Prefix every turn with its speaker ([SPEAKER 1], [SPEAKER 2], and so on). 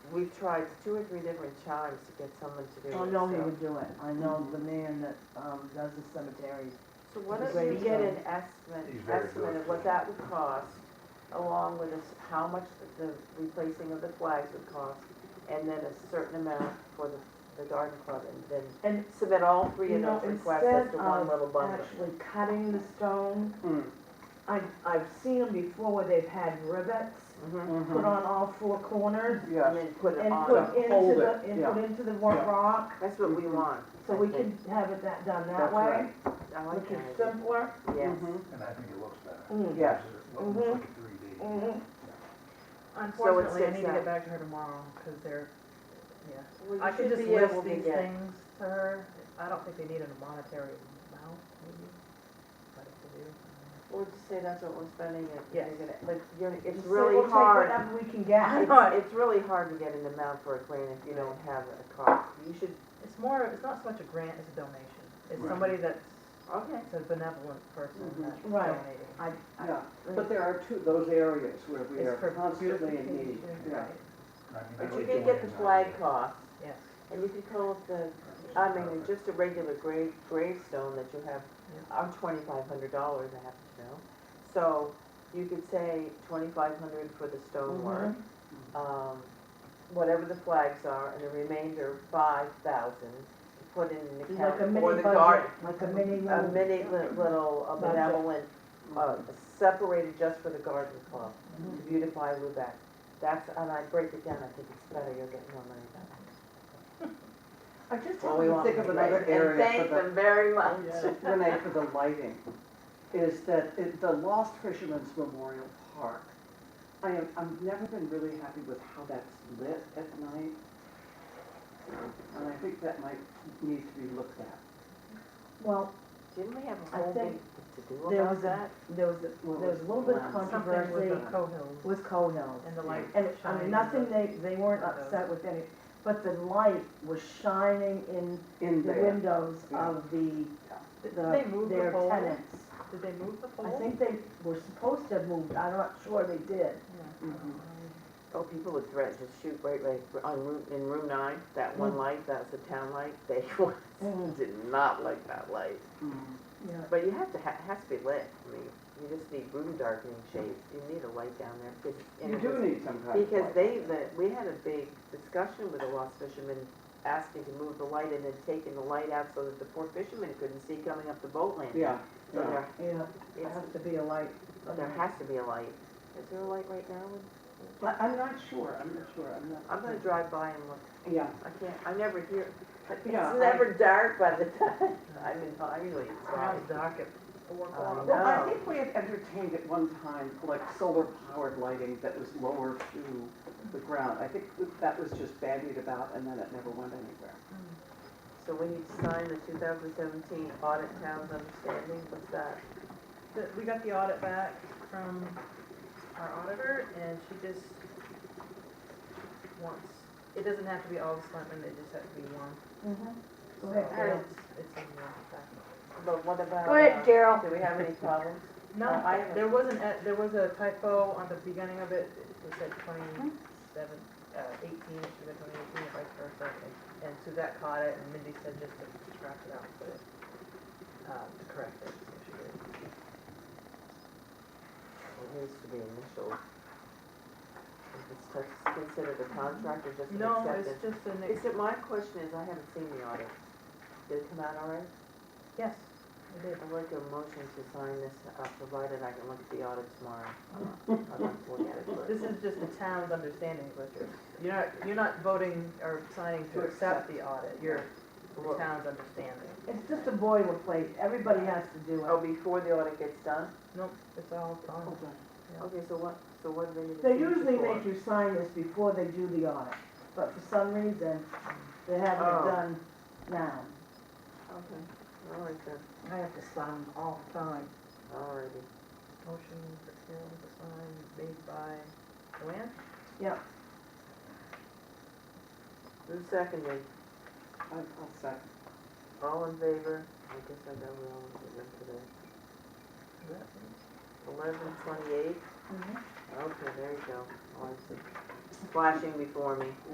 [SPEAKER 1] we've tried two or three different times to get someone to do it.
[SPEAKER 2] I know he
[SPEAKER 1] so-
[SPEAKER 2] Oh, would do it. I know the man that, um, does the cemeteries.
[SPEAKER 1] So why don't
[SPEAKER 2] Great
[SPEAKER 1] you get an
[SPEAKER 2] job.
[SPEAKER 1] estimate,
[SPEAKER 3] He's very
[SPEAKER 1] estimate of
[SPEAKER 3] good.
[SPEAKER 1] what that would cost, along with this, how much the replacing of the flags would cost, and then a certain amount for the, the garden club, and then
[SPEAKER 2] And,
[SPEAKER 1] submit all three
[SPEAKER 2] you
[SPEAKER 1] of
[SPEAKER 2] know,
[SPEAKER 1] those requests as
[SPEAKER 2] instead
[SPEAKER 1] to one little
[SPEAKER 2] of
[SPEAKER 1] bundle.
[SPEAKER 2] actually cutting the stone,
[SPEAKER 4] Mm-hmm.
[SPEAKER 2] I've, I've seen them before where they've had rivets
[SPEAKER 1] Mhm.
[SPEAKER 2] put on all four corners
[SPEAKER 1] And
[SPEAKER 4] Yes,
[SPEAKER 1] then put it
[SPEAKER 2] and
[SPEAKER 1] on,
[SPEAKER 2] put
[SPEAKER 4] Yeah,
[SPEAKER 2] into
[SPEAKER 4] hold
[SPEAKER 2] the,
[SPEAKER 4] it,
[SPEAKER 2] and
[SPEAKER 4] yeah.
[SPEAKER 2] put into the one
[SPEAKER 4] Yeah.
[SPEAKER 2] rock,
[SPEAKER 1] that's what we want.
[SPEAKER 2] so
[SPEAKER 1] I
[SPEAKER 2] we
[SPEAKER 1] think.
[SPEAKER 2] could have it that, done that
[SPEAKER 4] That's
[SPEAKER 2] way,
[SPEAKER 4] right.
[SPEAKER 1] I like
[SPEAKER 2] which
[SPEAKER 1] that
[SPEAKER 2] is
[SPEAKER 1] idea, Mm-hmm.
[SPEAKER 2] simpler.
[SPEAKER 1] yes.
[SPEAKER 4] Mhm.
[SPEAKER 3] And I think it looks better.
[SPEAKER 2] Mm.
[SPEAKER 4] Yes.
[SPEAKER 3] It looks like a three D.
[SPEAKER 1] Mm-hmm.
[SPEAKER 2] Mhm.
[SPEAKER 5] Unfortunately, I
[SPEAKER 1] sits
[SPEAKER 5] need to
[SPEAKER 1] out.
[SPEAKER 5] get back to her tomorrow, because they're, yeah.
[SPEAKER 1] Well, you
[SPEAKER 5] I could
[SPEAKER 1] should
[SPEAKER 5] just
[SPEAKER 1] be able
[SPEAKER 5] list
[SPEAKER 1] to
[SPEAKER 5] these
[SPEAKER 1] get-
[SPEAKER 5] things to her. I don't think they need a monetary amount, maybe, but if they do.
[SPEAKER 1] We'll just say that's what we're spending it, you're
[SPEAKER 5] Yes.
[SPEAKER 1] gonna, but you're, it's
[SPEAKER 2] Just say,
[SPEAKER 1] really
[SPEAKER 2] "We'll take
[SPEAKER 1] hard.
[SPEAKER 2] Whatever we can get.
[SPEAKER 1] It's,
[SPEAKER 5] know.
[SPEAKER 1] it's really hard to get an amount for a grant if you don't have a cost. You should,
[SPEAKER 5] It's more, of- it's not so much a grant as a donation. It's
[SPEAKER 3] Right.
[SPEAKER 5] somebody that's,
[SPEAKER 1] okay.
[SPEAKER 5] it's a benevolent person
[SPEAKER 4] Mhm.
[SPEAKER 5] that's
[SPEAKER 2] Mm-hmm. Right.
[SPEAKER 5] donating.
[SPEAKER 2] I, I,
[SPEAKER 4] yeah, but there are two, those areas where we
[SPEAKER 5] It's
[SPEAKER 4] are
[SPEAKER 5] for
[SPEAKER 4] constantly in need.
[SPEAKER 5] beautification,
[SPEAKER 4] Yeah.
[SPEAKER 5] right,
[SPEAKER 3] I mean, I
[SPEAKER 1] But you
[SPEAKER 3] like
[SPEAKER 1] can
[SPEAKER 3] way
[SPEAKER 1] get the
[SPEAKER 3] it's
[SPEAKER 1] flag
[SPEAKER 3] done.
[SPEAKER 1] cost,
[SPEAKER 5] Yes.
[SPEAKER 1] and you can call it the, I mean, just a regular grave, gravestone that you have, I'm twenty-five hundred dollars, I happen to know. So you could say twenty-five hundred for the stonework,
[SPEAKER 2] Mm-hmm.
[SPEAKER 1] um, whatever the flags are, and the remainder five thousand to put in an
[SPEAKER 2] like a
[SPEAKER 1] account
[SPEAKER 2] mini
[SPEAKER 1] or the
[SPEAKER 2] budget,
[SPEAKER 1] garden.
[SPEAKER 2] like a mini
[SPEAKER 1] A
[SPEAKER 2] little.
[SPEAKER 1] mini li- little uh,
[SPEAKER 2] Budget.
[SPEAKER 1] benevolent, uh, separated just for the garden club, to beautify Lubec. That's, and I break it down, I think it's better, you'll get more money back.
[SPEAKER 4] I just
[SPEAKER 1] Well, we
[SPEAKER 4] Uh, want
[SPEAKER 1] want
[SPEAKER 4] to think of
[SPEAKER 1] them to
[SPEAKER 4] another
[SPEAKER 1] make-
[SPEAKER 4] area for
[SPEAKER 1] very much.
[SPEAKER 4] the, Renee, for the lighting, is that it- the Lost Fisherman's Memorial Park. I am, I've never been really happy with how that's lit at night. And I think that might need to be looked at.
[SPEAKER 2] Well,
[SPEAKER 1] Didn't we have a
[SPEAKER 2] I
[SPEAKER 1] whole big
[SPEAKER 2] think
[SPEAKER 1] to-do
[SPEAKER 2] there
[SPEAKER 1] about
[SPEAKER 2] was
[SPEAKER 1] that?
[SPEAKER 2] a, there was, a- there was a little bit of
[SPEAKER 4] Something with
[SPEAKER 5] Something with the
[SPEAKER 2] controversy
[SPEAKER 5] Cohills
[SPEAKER 2] with Cohills.
[SPEAKER 5] and the light
[SPEAKER 2] And,
[SPEAKER 5] shining.
[SPEAKER 2] I mean, nothing, they, they weren't upset with any, but the light was shining in
[SPEAKER 4] In
[SPEAKER 2] the
[SPEAKER 4] there,
[SPEAKER 2] windows
[SPEAKER 4] Yeah.
[SPEAKER 2] of the,
[SPEAKER 5] Did they
[SPEAKER 2] the,
[SPEAKER 5] move the
[SPEAKER 2] their
[SPEAKER 5] pole?
[SPEAKER 2] tenants.
[SPEAKER 5] Did they move the pole?
[SPEAKER 2] I think they were supposed to have moved, I'm not sure they did.
[SPEAKER 5] Yeah.
[SPEAKER 4] Mhm.
[SPEAKER 1] Oh, people would threaten to shoot right, like, on room, in room nine, that one light, that's the town light, they
[SPEAKER 5] Mm-hmm.
[SPEAKER 2] Mm.
[SPEAKER 1] did not like that light.
[SPEAKER 4] Mm.
[SPEAKER 2] Yeah.
[SPEAKER 1] But you have to, ha- it has to be lit, I mean, you just need room darkening shades, you need a light down there, because. and
[SPEAKER 4] you
[SPEAKER 1] it
[SPEAKER 4] do
[SPEAKER 1] was-
[SPEAKER 4] need some kind of light.
[SPEAKER 1] Because they, the, we had a big discussion with the lost fishermen, asking to move the light and then taking the light out so that the poor fishermen couldn't see coming up the boat landing.
[SPEAKER 4] Yeah,
[SPEAKER 1] So
[SPEAKER 4] yeah.
[SPEAKER 1] there,
[SPEAKER 2] Yeah, it
[SPEAKER 1] it's-
[SPEAKER 2] has to be a light.
[SPEAKER 1] there has to be a light. Is there a light right now?
[SPEAKER 4] I- I'm not sure, I'm not sure, I'm not.
[SPEAKER 1] I'm gonna drive by and look.
[SPEAKER 4] Yeah,
[SPEAKER 1] I can't, I never hear, it's
[SPEAKER 4] Yeah, I-
[SPEAKER 1] never dark by the time I'm in Highland.
[SPEAKER 5] Now it's dark at four o'clock.
[SPEAKER 4] um,
[SPEAKER 1] No.
[SPEAKER 4] well, I think we had entertained at one time, like, solar powered lighting that was lower to the ground. I think that was just bandied about and then it never went anywhere.
[SPEAKER 1] So we need to sign the two thousand seventeen audit town's understanding, what's that?
[SPEAKER 5] The- We got the audit back from our auditor, and she just wants, it doesn't have to be all the selectmen, it just has to be one. So
[SPEAKER 2] Mm-hmm. Go ahead, Carol.
[SPEAKER 5] it's, it's in the document.
[SPEAKER 1] But what about?
[SPEAKER 2] Go ahead,
[SPEAKER 1] uh,
[SPEAKER 2] Gerald.
[SPEAKER 1] Do we have any problems?
[SPEAKER 5] No,
[SPEAKER 1] Uh, I haven't-
[SPEAKER 5] there was an, e- there was a typo on the beginning of it, it said twenty-seven, uh, eighteen, it should have been eighteen, or vice versa. and- And Suzette caught it, and Mindy said just to scratch it out, and put it, uh, to correct it, so she did.
[SPEAKER 1] It needs to be initial. Is this considered a contract or just an
[SPEAKER 5] No,
[SPEAKER 1] acceptance?
[SPEAKER 5] it's just an, ex-
[SPEAKER 1] Except my question is, I haven't seen the audit. Did it come out all right?
[SPEAKER 5] yes, it is.
[SPEAKER 1] I'd like a motion to sign this, uh, provided I can look at the audit tomorrow. I'd like to look at it first.
[SPEAKER 5] This is just the town's understanding of what you're, you're not, you're not voting or signing to
[SPEAKER 4] To
[SPEAKER 5] accept the audit, you're the
[SPEAKER 1] Well-
[SPEAKER 5] town's understanding.
[SPEAKER 2] It's just a boilerplate, everybody has to do
[SPEAKER 1] Oh,
[SPEAKER 2] it.
[SPEAKER 1] before the audit gets done?
[SPEAKER 5] Nope, it's all gone.
[SPEAKER 4] Okay.
[SPEAKER 1] Okay, so what, so what do they need to
[SPEAKER 2] They
[SPEAKER 1] change it
[SPEAKER 2] usually
[SPEAKER 1] for?
[SPEAKER 2] make you sign this before they do the audit, but for some reason, they haven't
[SPEAKER 1] Oh.
[SPEAKER 2] done now.
[SPEAKER 1] Okay, all right then,
[SPEAKER 2] I have to sign all the time.
[SPEAKER 1] all righty.
[SPEAKER 5] Motion for Carol to sign made by Joanne?
[SPEAKER 2] Yep.
[SPEAKER 1] Who's seconded?
[SPEAKER 4] I- I'll second.
[SPEAKER 1] All in favor? I guess I got it all in favor today.
[SPEAKER 5] Is that it?
[SPEAKER 1] Eleven
[SPEAKER 2] Mm-hmm.
[SPEAKER 1] twenty-eight? Okay, there you go. Oh, it's flashing before me.